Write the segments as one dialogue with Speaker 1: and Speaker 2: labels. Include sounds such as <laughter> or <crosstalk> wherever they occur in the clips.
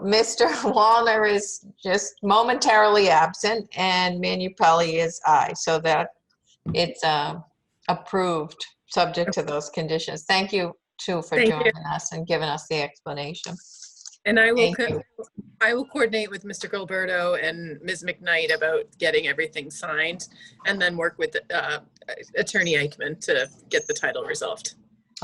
Speaker 1: Mr. <laughs> Wallner is just momentarily absent, and Manupelli is aye, so that it's um, approved, subject to those conditions. Thank you, too, for
Speaker 2: Thank you.
Speaker 1: joining us and giving us the explanation.
Speaker 2: And I will,
Speaker 1: Thank
Speaker 2: co- I will coordinate with Mr. Gilberto and Ms. McKnight about getting everything signed and then work with uh, Attorney Eichman to get the title resolved.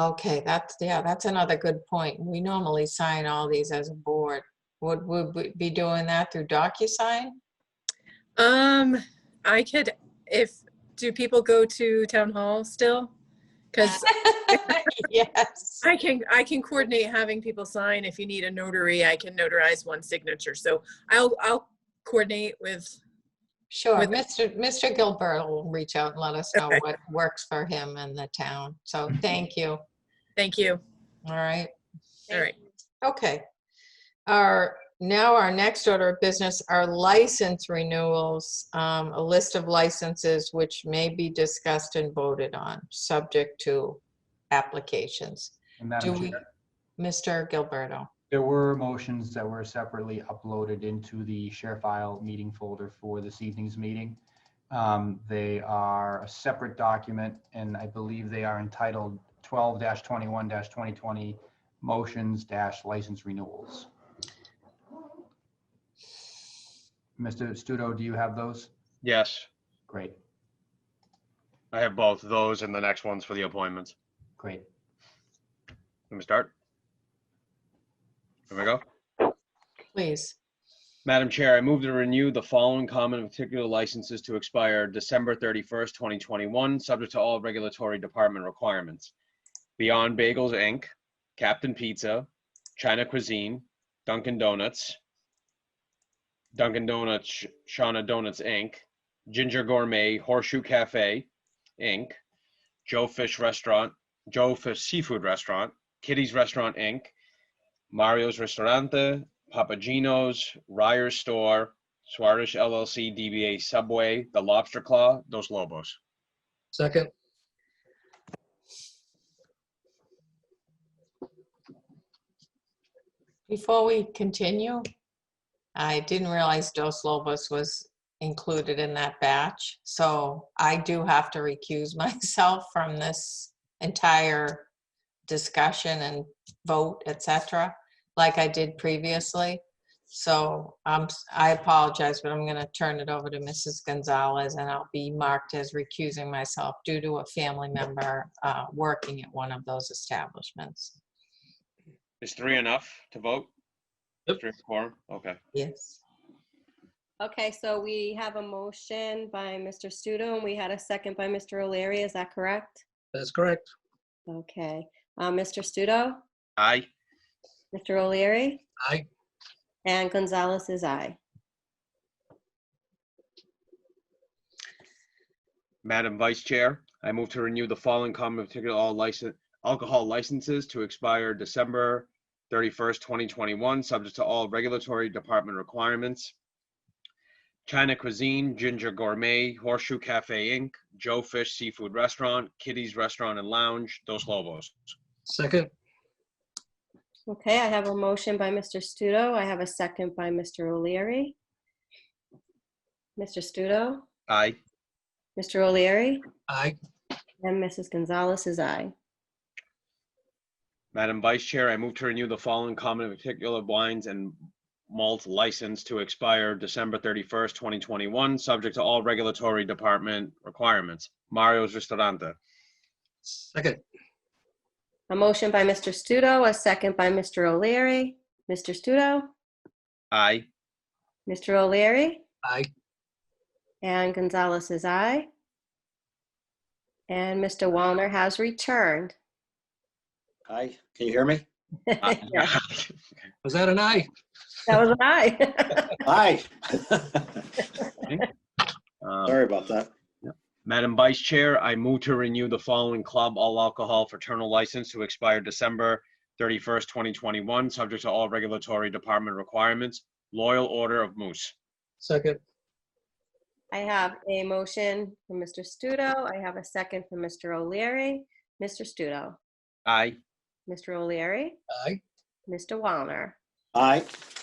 Speaker 1: Okay, that's, yeah, that's another good point. We normally sign all these as a board. Would, would we be doing that through DocuSign?
Speaker 2: Um, I could, if, do people go to town hall still? Because
Speaker 1: <laughs> Yes.
Speaker 2: I can, I can coordinate having people sign. If you need a notary, I can notarize one signature. So I'll, I'll coordinate with
Speaker 1: Sure,
Speaker 2: With-
Speaker 1: Mr. Mr. Gilbert will reach out and let us know
Speaker 2: Okay. Mm-hmm.
Speaker 1: what works for him and the town. So thank you. All
Speaker 2: Thank you.
Speaker 1: right,
Speaker 2: All right.
Speaker 1: okay. Our, now our next order of business are license renewals, um, a list of licenses which may be discussed and voted on, subject to applications.
Speaker 3: And
Speaker 1: Do
Speaker 3: Madam
Speaker 1: we,
Speaker 3: Chair,
Speaker 1: Mr. Gilberto?
Speaker 3: there were motions that were separately uploaded into the share file meeting folder for this evening's meeting. Um, They are a separate document, and I believe they are entitled twelve twenty-one twenty twenty motions dash license renewals. Mr. Studo, do you have those?
Speaker 4: Yes,
Speaker 3: Great,
Speaker 4: I have both those and the next ones for the appointments.
Speaker 3: great.
Speaker 4: Let me start. Here we go.
Speaker 1: Please,
Speaker 4: Madam Chair, I move to renew the following common and particular licenses to expire December 31st, 2021, subject to all regulatory department requirements. Beyond Bagels, Inc., Captain Pizza, China Cuisine, Dunkin' Donuts, Dunkin' Donuts, Shawna Donuts, Inc., Ginger Gourmet, Horseshoe Cafe, Inc., Joe Fish Restaurant, Joe Fish Seafood Restaurant, Kitty's Restaurant, Inc., Mario's Restaurante, Papagino's, Ryer's Store, Suarez LLC, DBA Subway, The Lobster Claw, Dos Lobos.
Speaker 5: Second,
Speaker 1: before we continue, I didn't realize Dos Lobos was included in that batch, so I do have to recuse <laughs> myself from this entire discussion and vote, etc., like I did previously. So um, I apologize, but I'm going to turn it over to Mrs. Gonzalez, and I'll be marked as recusing myself due to a family member uh, working at one of those establishments.
Speaker 4: Is three enough to vote?
Speaker 5: Yep.
Speaker 4: Three quorum, okay.
Speaker 1: Yes.
Speaker 6: Okay, so we have a motion by Mr. Studo, and we had a second by Mr. O'Leary, is that correct?
Speaker 5: that's correct.
Speaker 6: Okay, Uh, Mr. Studo,
Speaker 4: Aye.
Speaker 6: Mr. O'Leary,
Speaker 5: Aye.
Speaker 6: and Gonzalez is aye.
Speaker 4: Madam Vice Chair, I move to renew the following common and particular all license, alcohol licenses to expire December 31st, 2021, subject to all regulatory department requirements. China Cuisine, Ginger Gourmet, Horseshoe Cafe Inc., Joe Fish Seafood Restaurant, Kitty's Restaurant and Lounge, Dos Lobos.
Speaker 5: Second,
Speaker 6: Okay, I have a motion by Mr. Studo, I have a second by Mr. O'Leary. Mr. Studo,
Speaker 4: Aye.
Speaker 6: Mr. O'Leary,
Speaker 5: aye.
Speaker 6: and Mrs. Gonzalez is aye.
Speaker 4: Madam Vice Chair, I move to renew the following common and particular wines and malt license to expire December 31st, 2021, subject to all regulatory department requirements. Mario's Ristorante.
Speaker 5: Second,
Speaker 6: A motion by Mr. Studo, a second by Mr. O'Leary. Mr. Studo,
Speaker 4: Aye.
Speaker 6: Mr. O'Leary,
Speaker 5: aye.
Speaker 6: And Gonzalez is aye. And Mr. Wallner has returned.
Speaker 7: Hi, can you hear me?
Speaker 4: Ah.
Speaker 6: <laughs> Yeah,
Speaker 5: Was that an aye?
Speaker 6: That was an aye. <laughs>
Speaker 7: Hi. <laughs>
Speaker 4: Um,
Speaker 7: Sorry about that.
Speaker 4: Madam Vice Chair, I move to renew the following club all alcohol fraternal license to expire December 31st, 2021, subject to all regulatory department requirements. Loyal Order of Moose.
Speaker 5: Second,
Speaker 6: I have a motion from Mr. Studo. I have a second from Mr. O'Leary. Mr. Studo,
Speaker 4: Aye.
Speaker 6: Mr. O'Leary,
Speaker 5: aye.
Speaker 6: Mr. Wallner.
Speaker 7: Hi,